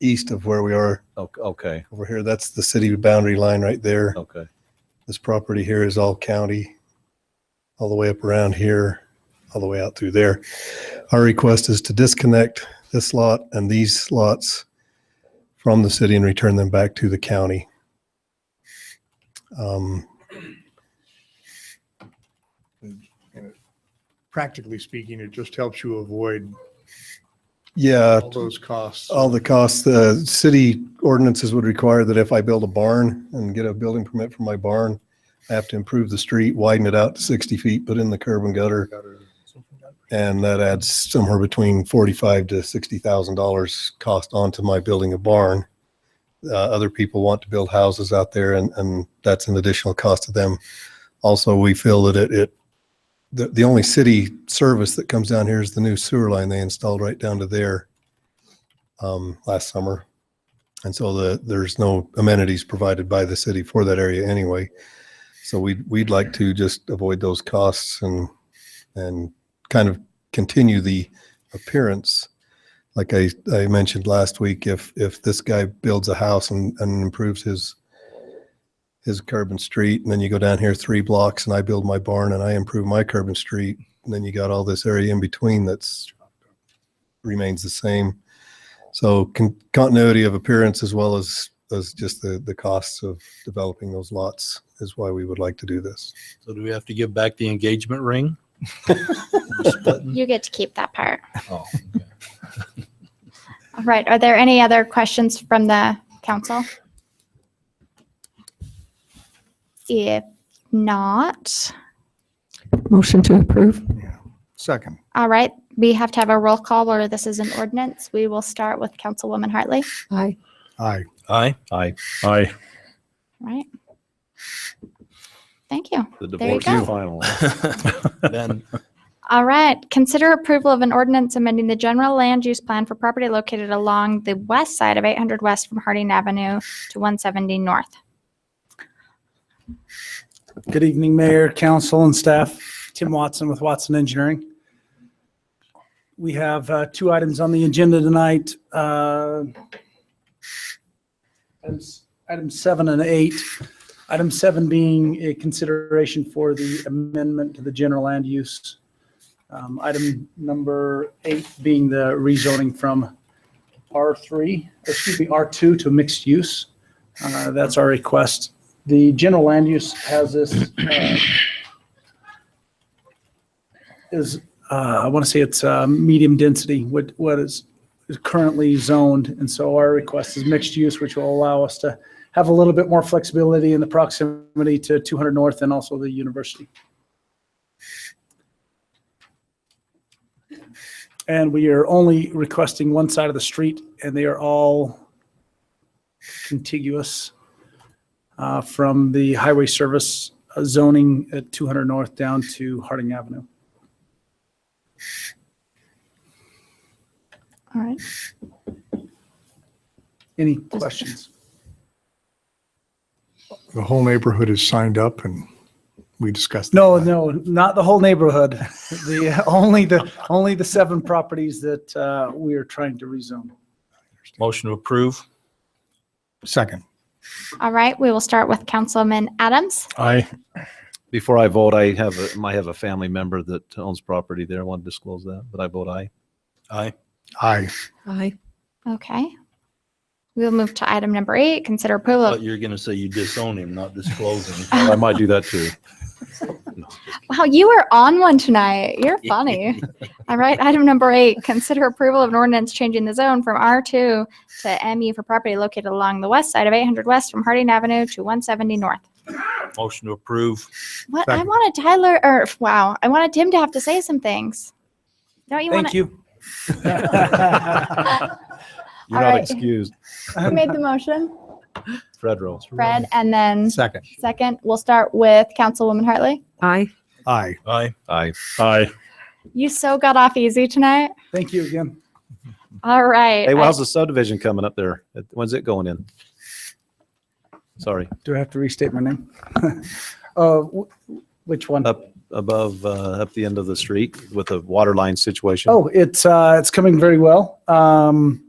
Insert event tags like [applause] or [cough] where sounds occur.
east of where we are O- Okay, over here. That's the city boundary line right there. okay. This property here is all county, all the way up around here, all the way out through there. Our request is to disconnect this lot and these lots from the city and return them back to the county. Um, practically speaking, it just helps you avoid Uh, Yeah, all those costs. all the costs, the city ordinances would require that if I build a barn and get a building permit for my barn, I have to improve the street, widen it out to 60 feet, put in the curb and gutter. And that adds somewhere between forty-five to sixty thousand dollars cost onto my building a barn. Uh, other people want to build houses out there and, and that's an additional cost to them. Also, we feel that it, it, the, the only city service that comes down here is the new sewer line they installed right down to there um, last summer. And so the, there's no amenities provided by the city for that area anyway. So we'd, we'd like to just avoid those costs and, and kind of continue the appearance. Like I, I mentioned last week, if, if this guy builds a house and, and improves his, his curb and street, and then you go down here three blocks and I build my barn and I improve my curb and street, and then you got all this area in between that's remains the same. So con- continuity of appearance as well as, as just the, the costs of developing those lots is why we would like to do this. So do we have to give back the engagement ring? You get to keep that part. Oh, All right. Are there any other questions from the council? If not, Motion to approve. Second. all right, we have to have a roll call or this is an ordinance. We will start with Councilwoman Hartley, Aye. Aye. [laughs] Aye. Aye. Aye. right? Thank you. The There you divorce is go. final. [laughs] Ben, All right, consider approval of an ordinance amending the general land use plan for property located along the west side of 800 West from Harding Avenue to 170 North. Good evening, Mayor, Council, and staff. Tim Watson with Watson Engineering. We have uh, two items on the agenda tonight. uh, Items item seven and eight. Item seven being a consideration for the amendment to the general land use. Um, Item number eight being the rezoning from R3, excuse me, R2 to mixed use. Uh, That's our request the general land use has this, uh, is, uh, I want to say it's uh, medium density, what, what is is currently zoned. And so our request is mixed use, which will allow us to have a little bit more flexibility in the proximity to 200 North and also the university. And we are only requesting one side of the street, and they are all contiguous uh, from the highway service uh, zoning at 200 North down to Harding Avenue. All right, Any questions? The whole neighborhood is signed up and we discussed. that. No, no, not the whole neighborhood. [laughs] The, uh, only the, only the seven properties that uh, we are trying to rezone. motion to approve. Second. all right, we will start with Councilman Adams. Aye. Before I vote, I have, a- might have a family member that owns property there. I want to disclose that, but I vote aye. Aye. Aye. Aye. Okay. We'll move to item number eight, consider approval. But of- you're going to say you disown him, not disclose him. I might do that [laughs] too. Wow, you are on one tonight. You're funny. All right, item number eight, consider approval of an ordinance changing the zone from R2 to MU for property located along the west side of 800 West from Harding Avenue to 170 North. Motion to approve. What, I Second. wanted Tyler, or, wow, I wanted Tim to have to say some things. Don't you want Thank to? you. [laughs] You're All not right. excused, Who made the motion? Fredro. Fred, and then Second. second, we'll start with Councilwoman Hartley. Aye. Aye. Aye. Aye. Aye. You so got off easy tonight. Thank you again. All right. Hey, well, I- how's the subdivision coming up there? When's it going in? Sorry, Do I have to restate my name? [laughs] Uh, wh- Which one? up above, uh, up the end of the street with the water line situation. Oh, it's uh, it's coming very well. Um,